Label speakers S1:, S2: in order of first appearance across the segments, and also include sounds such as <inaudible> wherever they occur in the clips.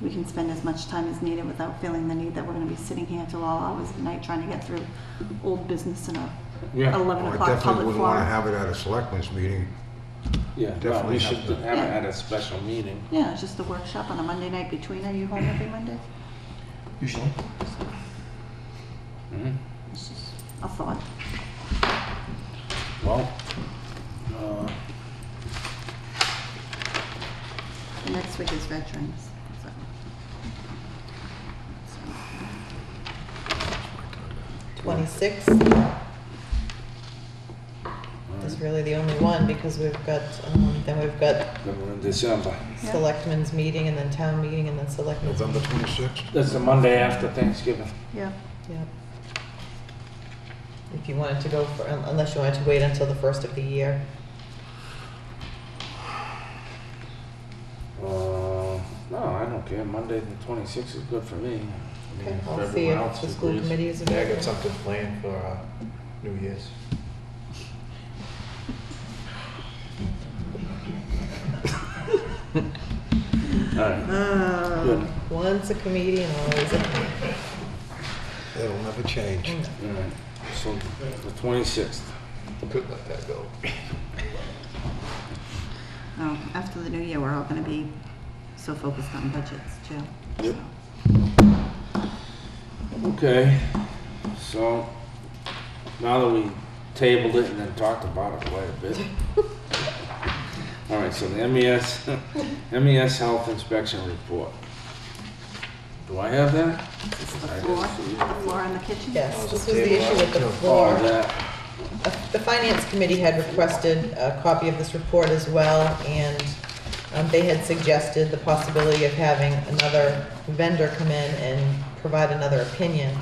S1: we can spend as much time as needed without feeling the need that we're gonna be sitting here till all hours of the night trying to get through old business in a
S2: Yeah.
S1: eleven
S3: Well, I
S1: o'clock
S3: definitely
S1: public
S3: wouldn't want to
S1: forum.
S3: have it at a selectmen's meeting.
S2: Yeah, no,
S3: Definitely
S2: we
S3: have
S2: should
S3: to-
S2: have it at a special meeting.
S1: Yeah, it's just a workshop on a Monday night between, are you home every Monday?
S4: Usually.
S2: Mhm.
S1: It's just a thought.
S2: Well, uh,
S1: The next week is veterans, so.
S5: Twenty-six is really the only one because we've got, um, then we've got
S2: then we're in December.
S1: Yeah.
S5: selectmen's meeting and then town meeting and then selectmen's.
S3: November 26th?
S2: That's the Monday after Thanksgiving.
S1: Yeah,
S5: Yep. If you wanted to go for, un- unless you wanted to wait until the first of the year.
S2: Uh, no, I don't care. Monday the 26th is good for me. I
S5: Okay,
S2: mean, if
S5: I'll see
S2: everyone
S5: if
S2: else
S5: the school
S2: agrees.
S5: committee is
S4: Yeah, I got
S5: available.
S4: something planned for uh, New Year's.
S2: <laughs> All right.
S5: Ah,
S2: Good.
S5: Once a comedian, always a.
S3: It'll never change.
S2: All right. So the 26th.
S4: Could let that go.
S1: um, after the new year, we're all gonna be so focused on budgets too.
S2: Yep.
S1: so.
S2: Okay. So now that we tabled it and then talked about it quite a <laughs> bit. All right. So the E MES, <laughs> MES E health inspection report. Do I have that?
S1: It's the
S2: I
S1: floor,
S2: just see.
S1: the floor in the kitchen.
S5: Yes,
S4: was
S5: this
S4: a
S5: was the
S4: table
S5: issue with the
S4: item, too.
S5: floor.
S2: Oh, that.
S5: Uh, The Finance Committee had requested a copy of this report as well, and um, they had suggested the possibility of having another vendor come in and provide another opinion.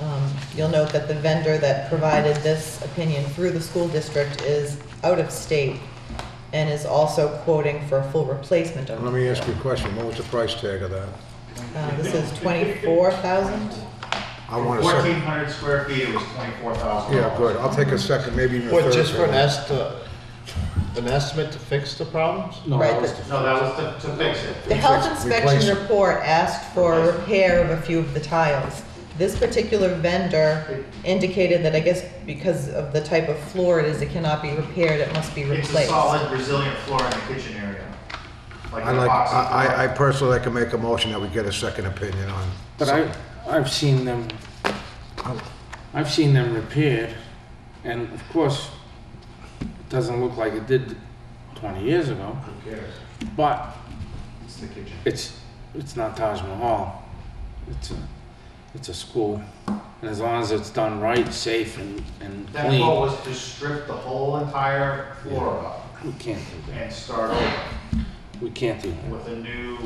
S5: Um, You'll note that the vendor that provided this opinion through the school district is out of state and is also quoting for a full replacement of.
S3: Let me ask you a question. What was the price tag of that?
S5: Uh, This is twenty-four thousand?
S3: I want a
S6: Fourteen
S3: second.
S6: hundred square feet, it was twenty-four thousand.
S3: Yeah, good. I'll take a second, maybe even a third.
S4: What, just for an estimate, an estimate to fix the problems?
S2: No,
S5: Right,
S2: that was
S5: but-
S2: the-
S6: No, that was to, to fix it.
S5: The health
S3: Replace-
S5: inspection
S3: replace-
S5: report asked for a
S6: Replace.
S5: repair of a few of the tiles. This particular vendor indicated that I guess because of the type of floor it is, it cannot be repaired, it must be
S6: It's a
S5: replaced.
S6: solid resilient floor in the kitchen area. Like
S3: I
S6: a
S3: like,
S6: box.
S3: I, I- I personally like to make a motion that we get a second opinion on.
S2: But I, I've seen them,
S3: Oh.
S2: I've seen them repaired, and of course, it doesn't look like it did 20 years ago,
S6: Who cares?
S2: but
S6: It's the kitchen.
S2: it's, it's not Taj Mahal. It's a, it's a school, and as long as it's done right, safe, and, and
S6: That goal
S2: clean,
S6: was to strip the whole entire floor up
S2: we can't do
S6: and start over
S2: that. We can't do that.
S6: with a new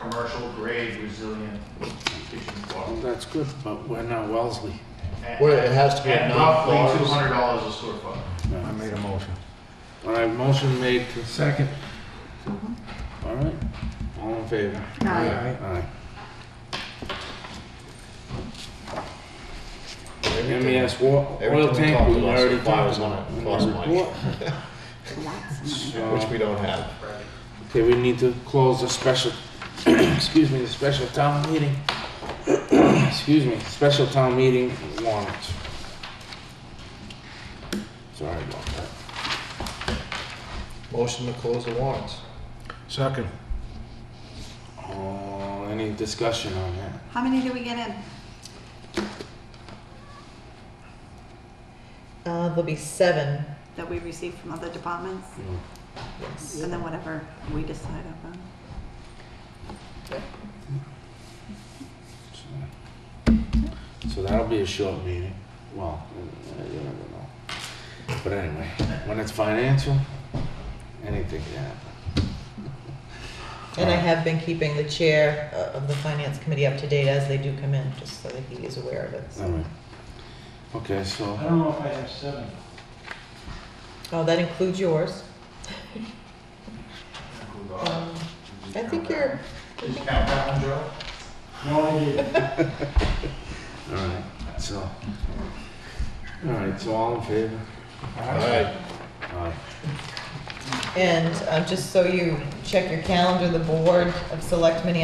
S6: commercial grade resilient kitchen
S2: Well,
S6: floor.
S2: That's good, but we're not Wellesley.
S6: And-
S4: Well, it has to be
S6: And
S4: nine
S6: roughly
S4: floors.
S6: two hundred dollars a square foot.
S2: No.
S3: I made a motion.
S2: All right, motion made to second. All right, all in favor?
S1: Aye.
S2: Aye. MES E wa- oil
S4: Everything we
S2: tank,
S4: talked
S2: we
S4: about
S2: already
S4: so far
S2: talked
S4: is on
S2: about.
S4: a
S2: in the
S4: cost mic.
S2: report.
S1: Lots of money.
S4: Which
S2: So,
S4: we don't have.
S2: Okay, we need to close the special, <clears throat> excuse me, the special town meeting. <clears throat> Excuse me, special town meeting warrants. Sorry about that.
S4: Motion to close the warrants.
S3: Second.
S2: Oh, any discussion on that?
S1: How many do we get in?
S5: Uh, there'll be seven,
S1: that we receive from other departments,
S2: No.
S5: yes.
S1: and then whatever we decide upon.
S2: So- So that'll be a short meeting. Well, uh, you never know. But anyway, when it's financial, anything can happen.
S5: And I have been keeping the chair uh, of the Finance Committee up to date as they do come in, just so that he is aware of it.
S2: All
S5: so.
S2: right. Okay, so,
S7: I don't know if I have seven.
S5: Oh, that includes yours.
S6: Who
S5: Um,
S6: thought? Did you
S5: I
S6: count
S5: think
S6: that?
S5: you're,
S6: Did you count that one, Joe?
S7: No, I didn't.
S2: all right, so. All right, so all in favor?
S4: All right.
S2: Aye.
S5: and uh, just so you check your calendar, the Board of Selectmen